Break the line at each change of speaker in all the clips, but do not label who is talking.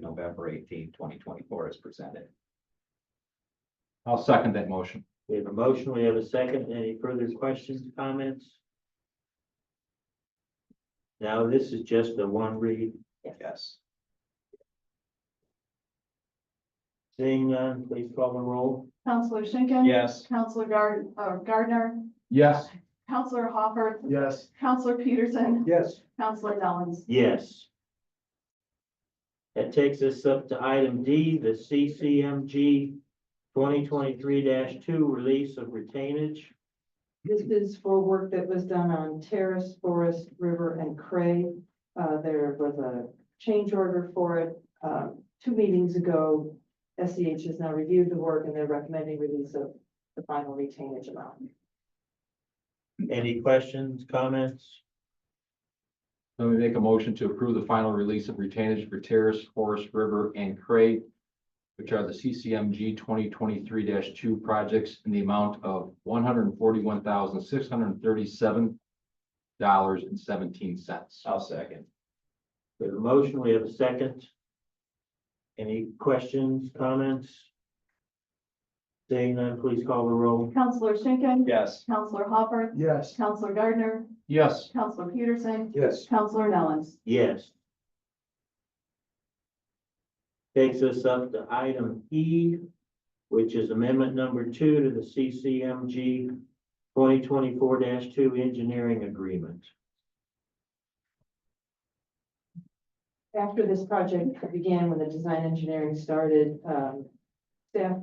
November 18th, 2024, as presented.
I'll second that motion.
We have a motion, we have a second. Any further questions, comments? Now, this is just a one read
Yes.
thing, uh, please call the roll.
Counselor Schinkin.
Yes.
Counselor Gard, uh, Gardner,
Yes.
Counselor Hopper,
Yes.
Counselor Peterson,
Yes.
Counselor Nellens.
Yes. That takes us up to item D, the CCMG twenty twenty-three two, release of retainage.
This is for work that was done on Terrace, Forest, River, and Cray. Uh, there was a change order for it, um, two meetings ago. SEH has now reviewed the work and they're recommending release of the final retainage amount.
Any questions, comments?
Let me make a motion to approve the final release of retainage for Terrace, Forest River, and Cray, which are the CCMG twenty twenty-three two projects in the amount of one hundred and forty-one thousand, six hundred and thirty-seven dollars and seventeen cents.
I'll second.
We have a motion, we have a second. Any questions, comments? Seeing none, please call the roll.
Counselor Schinkin.
Yes.
Counselor Hopper,
Yes.
Counselor Gardner,
Yes.
Counselor Peterson,
Yes.
Counselor Nellens.
Yes. Takes us up to item E, which is amendment number two to the CCMG twenty twenty-four two engineering agreement.
After this project began, when the design engineering started, um, staff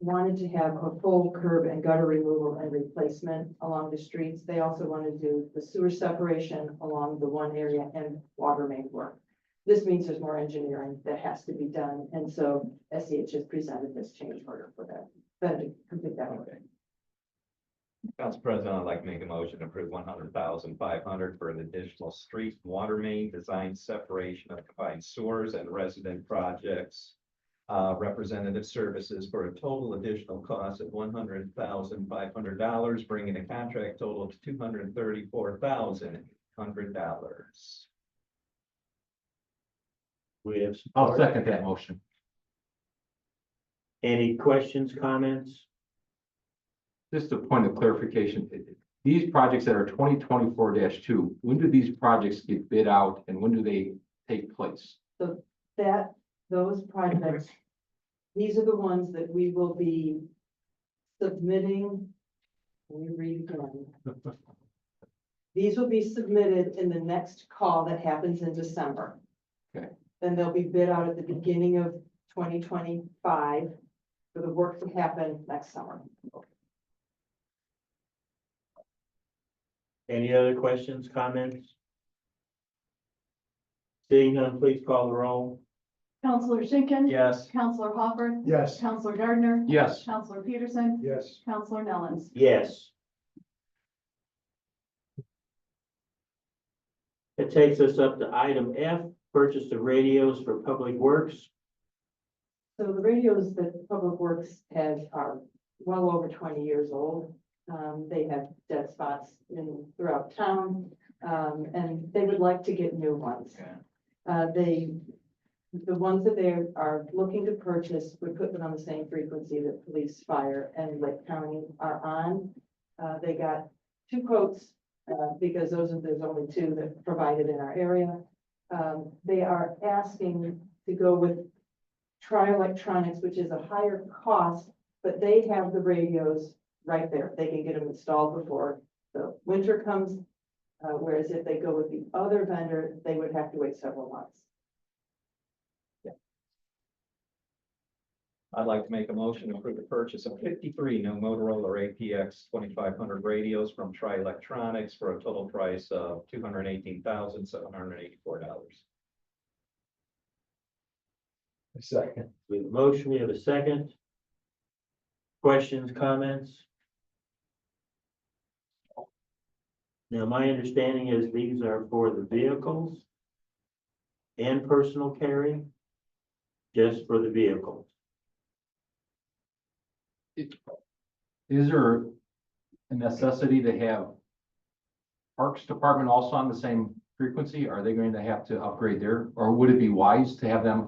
wanted to have a full curb and gutter removal and replacement along the streets. They also wanted to do the sewer separation along the one area and water main work. This means there's more engineering that has to be done, and so SEH has presented this change order for that, them to complete that work.
Okay. Council President, I'd like to make a motion to approve one hundred thousand five hundred for an additional street water main design separation of combined sewers and resident projects. Uh, representative services for a total additional cost of one hundred thousand five hundred dollars, bringing the contract total to two hundred thirty-four thousand hundred dollars.
We have. support.
I'll second that motion.
Any questions, comments?
Just a point of clarification, i- i- these projects that are twenty twenty-four two, when do these projects get bid out and when do they take place?
that, those projects, these are the ones that we will be submitting. Let me read again. These will be submitted in the next call that happens in December.
Okay.
Then they'll be bid out at the beginning of twenty twenty-five for the work to happen next summer.
Any other questions, comments? Seeing none, please call the roll.
Counselor Schinkin.
Yes.
Counselor Hopper,
Yes.
Counselor Gardner,
Yes.
Counselor Peterson,
Yes.
Counselor Nellens.
Yes. It takes us up to item F, purchase of radios for public works.
So the radios that Public Works has are well over twenty years old. Um, they have dead spots in throughout town, um, and they would like to get new ones.
Yeah.
Uh, they, the ones that they are looking to purchase would put them on the same frequency that police, fire, and Lake County are on. Uh, they got two quotes, uh, because those are, there's only two that provided in our area. Um, they are asking to go with Tri Electronics, which is a higher cost, but they have the radios right there. They can get them installed before the winter comes. Uh, whereas if they go with the other vendor, they would have to wait several months.
I'd like to make a motion to approve the purchase of fifty-three new Motorola APX twenty-five hundred radios from Tri Electronics for a total price of two hundred eighteen thousand seven hundred eighty-four dollars.
Second.
We have a motion, we have a second. Questions, comments? Now, my understanding is these are for the vehicles and personal carry, just for the vehicles.
Is there a necessity to have Parks Department also on the same frequency? Are they going to have to upgrade their, or would it be wise to have them